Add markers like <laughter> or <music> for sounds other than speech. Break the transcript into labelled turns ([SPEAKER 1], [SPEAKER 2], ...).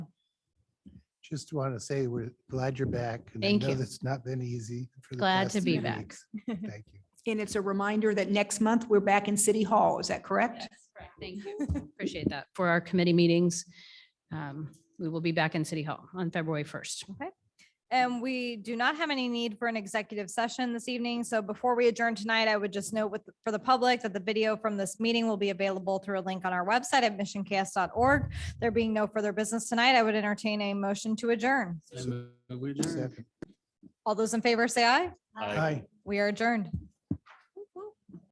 [SPEAKER 1] just want to say we're glad you're back. and I
[SPEAKER 2] Thank
[SPEAKER 1] know
[SPEAKER 2] you.
[SPEAKER 1] That's not been easy. for the
[SPEAKER 2] Glad
[SPEAKER 1] past
[SPEAKER 2] to be
[SPEAKER 1] three
[SPEAKER 2] back.
[SPEAKER 1] weeks. Thank you.
[SPEAKER 3] And it's a reminder that next month we're back in City Hall. Is that correct?
[SPEAKER 2] Yes, correct. Thank you. <laughs> Appreciate that. For our committee meetings, um, we will be back in City Hall on February 1st.
[SPEAKER 4] And we do not have any need for an executive session this evening. So before we adjourn tonight, I would just note with, for the public that the video from this meeting will be available through a link on our website at missioncast.org. There being no further business tonight, I would entertain a motion to adjourn.
[SPEAKER 5] I move we adjourn.
[SPEAKER 1] Second.
[SPEAKER 4] All those in favor say aye.
[SPEAKER 5] Aye.
[SPEAKER 1] Hi.
[SPEAKER 4] We are adjourned.